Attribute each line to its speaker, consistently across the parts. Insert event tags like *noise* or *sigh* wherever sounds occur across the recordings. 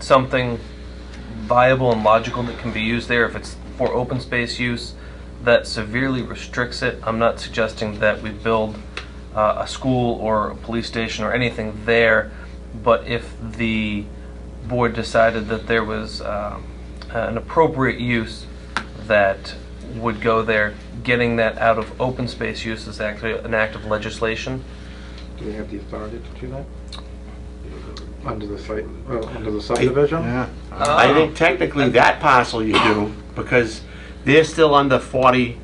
Speaker 1: something viable and logical that can be used there, if it's for open space use, that severely restricts it. I'm not suggesting that we build uh, a school or a police station or anything there, but if the board decided that there was um, an appropriate use that would go there, getting that out of open space use is actually an act of legislation.
Speaker 2: Do we have the authority to do that? Under the site, well, under the subdivision?
Speaker 3: Yeah.
Speaker 1: Oh.
Speaker 4: I think technically that parcel you do, because they're still under 40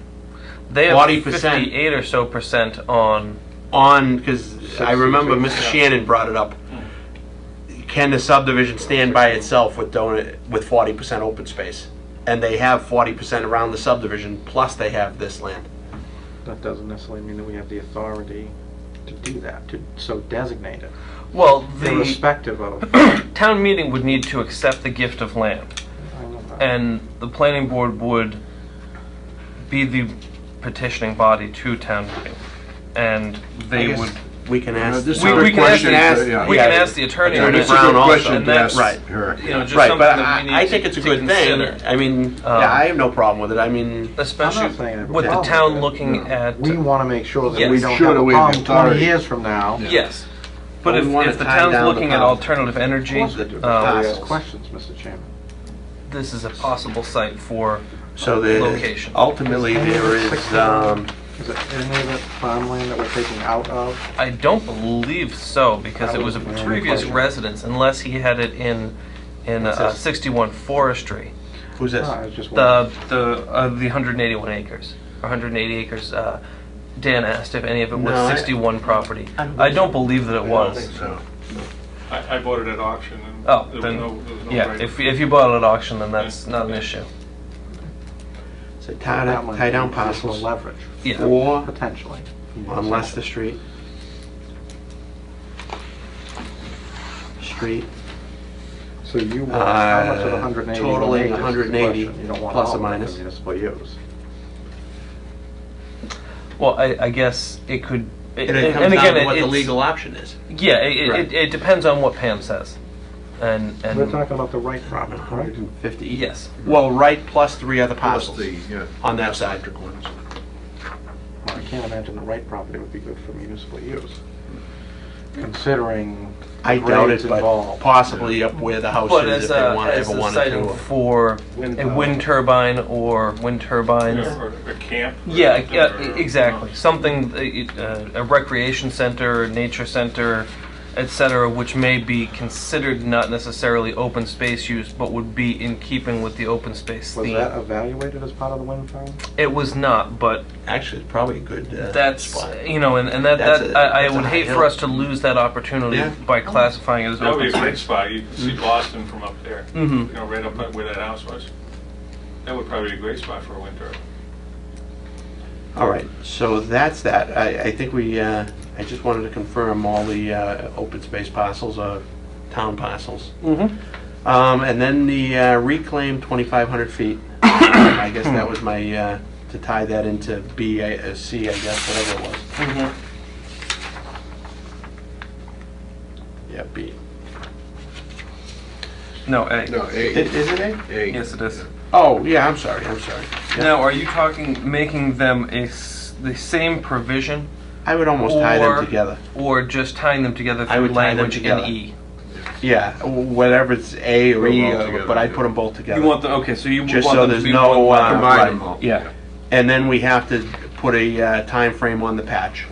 Speaker 1: They have
Speaker 4: 40%.
Speaker 1: 58 or so percent on.
Speaker 4: on, because I remember Mr. Shannon brought it up. Can the subdivision stand by itself with donut, with 40% open space? And they have 40% around the subdivision, plus they have this land.
Speaker 2: That doesn't necessarily mean that we have the authority to do that, to so designate it,
Speaker 1: Well, the
Speaker 2: irrespective
Speaker 3: *clears throat*
Speaker 2: of. I
Speaker 1: town meeting would need to accept the gift of land.
Speaker 2: know that.
Speaker 1: And the planning board would be the petitioning body to town meeting. And
Speaker 4: I
Speaker 1: they
Speaker 4: guess
Speaker 1: would,
Speaker 4: We can ask.
Speaker 3: Uh, this is
Speaker 1: we
Speaker 3: a
Speaker 1: we can ask,
Speaker 3: question
Speaker 1: the-
Speaker 3: to- yeah.
Speaker 1: we can
Speaker 4: Yeah.
Speaker 1: ask the attorney. on
Speaker 4: Attorney
Speaker 1: that.
Speaker 3: That's a good
Speaker 4: Brown also,
Speaker 3: question
Speaker 1: and
Speaker 3: to ask
Speaker 1: that's,
Speaker 4: right.
Speaker 3: her.
Speaker 1: You know, just
Speaker 4: Right,
Speaker 1: something
Speaker 4: but
Speaker 1: that we need
Speaker 4: I, I
Speaker 1: to-
Speaker 4: think it's a
Speaker 1: to
Speaker 4: good thing.
Speaker 1: consider.
Speaker 4: I mean,
Speaker 1: Um,
Speaker 4: yeah, I have no problem with it. I mean,
Speaker 1: Especially
Speaker 2: I'm not saying I have a
Speaker 1: with the
Speaker 2: problem with
Speaker 1: town
Speaker 2: it.
Speaker 1: looking
Speaker 3: No.
Speaker 1: at,
Speaker 2: We want to make sure that we
Speaker 1: Yes.
Speaker 2: don't
Speaker 3: Sure
Speaker 2: have
Speaker 3: that
Speaker 2: a
Speaker 3: we have
Speaker 2: problem 20
Speaker 3: authority.
Speaker 2: years from now.
Speaker 3: Yeah.
Speaker 1: yes. But
Speaker 4: Well,
Speaker 1: if,
Speaker 4: we wanna
Speaker 1: if the
Speaker 4: tie
Speaker 1: town's
Speaker 4: down the
Speaker 1: looking at
Speaker 4: power.
Speaker 1: alternative energy,
Speaker 2: Of course they do, but
Speaker 1: um,
Speaker 2: they
Speaker 4: Yes.
Speaker 2: uh, ask questions, Mr. Chairman.
Speaker 1: this is a possible site for,
Speaker 4: so the,
Speaker 1: Location.
Speaker 4: ultimately, there is, um,
Speaker 2: Is it any of the farmland that we're taking out of?
Speaker 1: I don't believe so, because it was a
Speaker 2: That was my
Speaker 1: previous
Speaker 2: question.
Speaker 1: residence, unless he had it in, in
Speaker 4: What's
Speaker 1: uh,
Speaker 4: this?
Speaker 1: 61 Forestry.
Speaker 4: who's this?
Speaker 2: No, I was just
Speaker 1: The,
Speaker 2: wondering.
Speaker 1: the, uh, the 181 acres, or 180 acres, uh, Dan asked if any of it
Speaker 4: No,
Speaker 1: was
Speaker 4: I-
Speaker 1: 61 property.
Speaker 4: I don't
Speaker 1: I
Speaker 4: think
Speaker 1: don't
Speaker 4: so.
Speaker 1: believe that it was.
Speaker 4: So,
Speaker 5: I, I bought it at auction and
Speaker 1: Oh,
Speaker 5: there was
Speaker 1: then,
Speaker 5: no, there was no
Speaker 1: yeah,
Speaker 5: right-
Speaker 1: if, if you bought it at auction, then that's
Speaker 5: Yeah.
Speaker 1: not an issue.
Speaker 4: so tie
Speaker 2: That
Speaker 4: down,
Speaker 2: one
Speaker 4: tie down
Speaker 2: is just for
Speaker 4: parcels
Speaker 2: Leverage,
Speaker 1: Yeah,
Speaker 4: four
Speaker 2: potentially.
Speaker 4: on Leicester Street. Street,
Speaker 2: So you want, how much of the
Speaker 4: Uh,
Speaker 2: 180?
Speaker 4: totaling 180,
Speaker 2: You don't want
Speaker 4: plus or
Speaker 2: all of it
Speaker 4: minus.
Speaker 2: for municipal use.
Speaker 1: well, I, I guess it could,
Speaker 4: and
Speaker 1: and
Speaker 4: it
Speaker 1: and
Speaker 4: comes down
Speaker 1: again,
Speaker 4: to what the
Speaker 1: it- it's,
Speaker 4: legal option is.
Speaker 1: yeah, it- it,
Speaker 4: Right.
Speaker 1: it, it depends on what Pam says. And, and.
Speaker 2: We're talking about the right property,
Speaker 4: Uh-huh.
Speaker 2: right?
Speaker 4: 150.
Speaker 1: Yes.
Speaker 4: E. Well, right, plus three other
Speaker 3: Plus
Speaker 4: parcels.
Speaker 3: the, yeah,
Speaker 4: On that side.
Speaker 3: electric ones.
Speaker 2: Well, I can't imagine the right property would be good for municipal use, considering
Speaker 4: I doubt
Speaker 2: grades
Speaker 4: it, but
Speaker 2: involved.
Speaker 4: possibly up where the house
Speaker 1: But as
Speaker 4: is Oh, if they
Speaker 1: a,
Speaker 4: want,
Speaker 1: as
Speaker 4: ever
Speaker 1: a
Speaker 4: wanted
Speaker 1: siting
Speaker 4: to. uh,
Speaker 1: for
Speaker 2: Wind
Speaker 1: a
Speaker 2: power.
Speaker 1: wind turbine or wind turbines.
Speaker 5: Or a camp. or
Speaker 1: Yeah,
Speaker 5: something,
Speaker 1: yeah,
Speaker 5: or-
Speaker 1: e- exactly. Something, uh, uh, a recreation center, nature center, et cetera, which may be considered not necessarily open space use, but would be in keeping with the open space
Speaker 2: Was
Speaker 1: theme.
Speaker 2: that evaluated as part of the wind farm?
Speaker 1: It was not, but
Speaker 4: Actually, it's probably a good uh,
Speaker 1: that's,
Speaker 4: spot.
Speaker 1: you know, and, and that,
Speaker 4: That's
Speaker 1: that
Speaker 4: a-
Speaker 1: I, I
Speaker 4: that's a
Speaker 1: would
Speaker 4: high
Speaker 1: hate
Speaker 4: hill.
Speaker 1: for us to lose that opportunity
Speaker 4: Yeah.
Speaker 1: by classifying it as
Speaker 5: That would
Speaker 1: open
Speaker 5: be a great
Speaker 1: space.
Speaker 5: spot, you could see Boston from up there.
Speaker 1: Mhm.
Speaker 5: You know, right up where that house was. That would probably be a great spot for a winter.
Speaker 4: All right, so that's that. I, I think we, uh, I just wanted to confirm all the uh, open space parcels are town parcels.
Speaker 1: Mm-hmm.
Speaker 4: Um, And then the uh, reclaimed 2,500 feet. Um, I guess that was my, uh, to tie that into B, I- uh, C, I guess, whatever it was.
Speaker 5: Mm-hmm.
Speaker 4: Yeah, B.
Speaker 1: No, A.
Speaker 3: No,
Speaker 4: I-
Speaker 3: A.
Speaker 4: Is it A?
Speaker 3: A.
Speaker 1: Yes, it is.
Speaker 4: Oh, yeah, I'm sorry, I'm sorry.
Speaker 1: Now, are you talking making them a s- the same provision,
Speaker 4: I would almost tie
Speaker 1: Or-
Speaker 4: them together.
Speaker 1: or just tying them together
Speaker 4: I
Speaker 1: through
Speaker 4: would tie them
Speaker 1: language
Speaker 4: together.
Speaker 1: and E?
Speaker 4: Yeah, whatever it's A or
Speaker 3: Put 'em
Speaker 4: E,
Speaker 3: all
Speaker 4: uh,
Speaker 3: together,
Speaker 4: but I
Speaker 3: yeah.
Speaker 4: put them both together.
Speaker 1: You want the okay, so you would
Speaker 4: Just
Speaker 1: want
Speaker 4: so
Speaker 1: them to
Speaker 4: there's
Speaker 1: be
Speaker 4: no,
Speaker 1: one
Speaker 4: uh,
Speaker 1: line.
Speaker 3: Combine
Speaker 4: right.
Speaker 3: them all.
Speaker 1: Yeah.
Speaker 4: And then we have to put a uh, time frame on the patch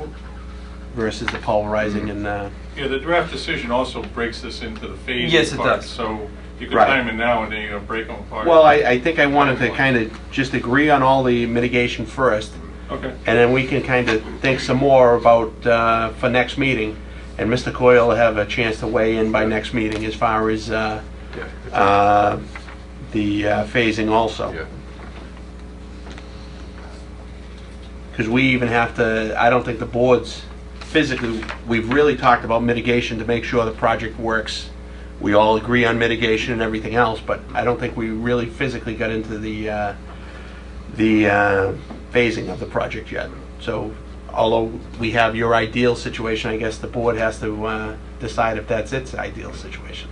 Speaker 4: versus the pulverizing and, uh,
Speaker 5: Yeah, the draft decision also breaks this into the phases.
Speaker 1: Yes, it
Speaker 5: part,
Speaker 1: does.
Speaker 5: So you could
Speaker 4: Right.
Speaker 5: time it now and then you're gonna break them apart.
Speaker 4: well, I, I think I wanted to kind of just agree on all the mitigation first,
Speaker 5: Okay.
Speaker 4: and then we can kind of think some more about, uh, for next meeting. And Mr. Coyle will have a chance to weigh in by next meeting as far as uh,
Speaker 3: Yeah.
Speaker 4: uh, the uh, phasing also.
Speaker 3: Yeah.
Speaker 4: Because we even have to, I don't think the boards, physically, we've really talked about mitigation to make sure the project works. We all agree on mitigation and everything else, but I don't think we really physically got into the, uh, the uh, phasing of the project yet. So although we have your ideal situation, I guess the board has to uh, decide if that's its ideal situation.